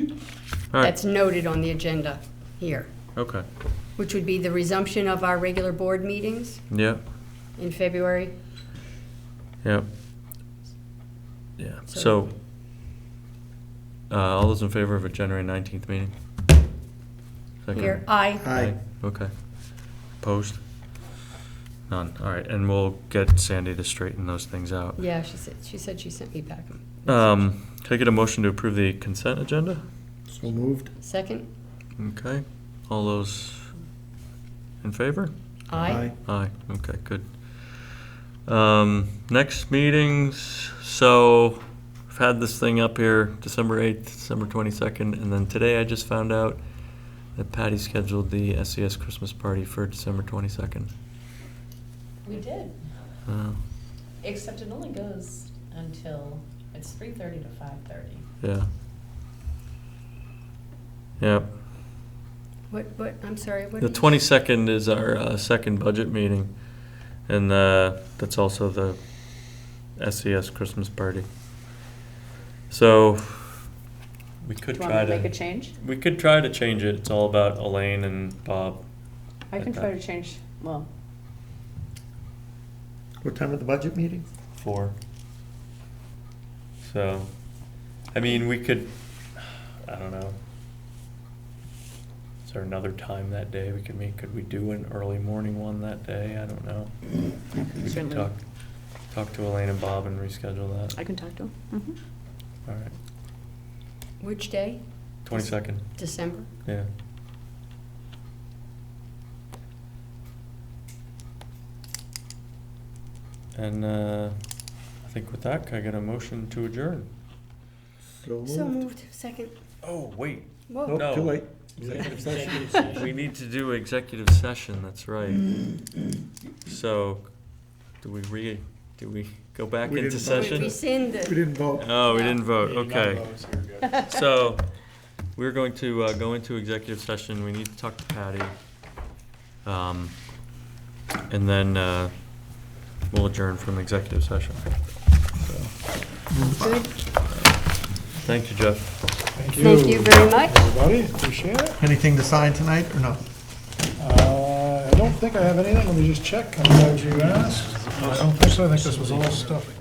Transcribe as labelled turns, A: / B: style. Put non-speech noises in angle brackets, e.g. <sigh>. A: All right.
B: that's noted on the agenda here,
A: Okay,
B: which would be the resumption of our regular board meetings
A: yeah,
B: in February.
A: yeah. Yeah, so,
B: So-
A: uh, all those in favor of a January nineteenth meeting? Second?
B: Here, I,
C: Aye.
A: Okay. Opposed? None, all right, and we'll get Sandy to straighten those things out.
B: yeah, she said, she said she sent me back.
A: Um, can I get a motion to approve the consent agenda?
C: So moved.
B: Second,
A: Okay, all those in favor?
B: I,
A: Aye, okay, good. Um, next meetings, so I've had this thing up here, December eighth, December twenty-second, and then today I just found out that Patty scheduled the SES Christmas party for December twenty-second.
D: We did,
A: Uh,
D: except it only goes until, it's three thirty to five thirty.
A: yeah. Yep,
B: what, what, I'm sorry, what?
A: the
B: did you-
A: twenty-second is our, uh, second budget meeting, and, uh, that's also the SES Christmas party. So, we could
E: Do you
A: try
E: want
A: to.
E: me to make a change?
A: We could try to change it. It's all about Elaine and Bob.
E: I can
A: Okay.
E: try to change, well,
C: What time of the budget meeting?
A: Four. So, I mean, we could, I don't know. Is there another time that day we could meet? Could we do an early morning one that day? I don't know. We could
E: Certainly.
A: talk, talk to Elaine and Bob and reschedule
E: I
A: that.
E: can talk to him. Mhm.
F: Mm-hmm.
A: All right.
B: Which day?
A: Twenty-second,
B: December?
A: yeah. And, uh, I think with that, can I get a motion to adjourn?
C: Oh.
B: So moved, second.
A: Oh, wait.
B: Whoa.
C: Nope, too
A: No.
C: late. <laughs> Executive session.
A: We need to do executive session, that's right. So, do we re, do we go back
C: We
A: into
C: didn't vote.
B: We
A: session?
B: rescind
C: We
B: the,
C: didn't vote.
A: Oh, we didn't vote, okay.
C: okay.
A: So, we're going to uh, go into executive session, we need to talk to Patty. Um, And then uh, we'll adjourn from executive session. So,
B: good,
A: Thank you, Jeff.
B: thank you very much.
F: Everybody, appreciate it.
C: Anything to sign tonight or no?
F: Uh, I don't think I have anything, let me just check, I'm glad you asked. I don't think so, I think this was all stuff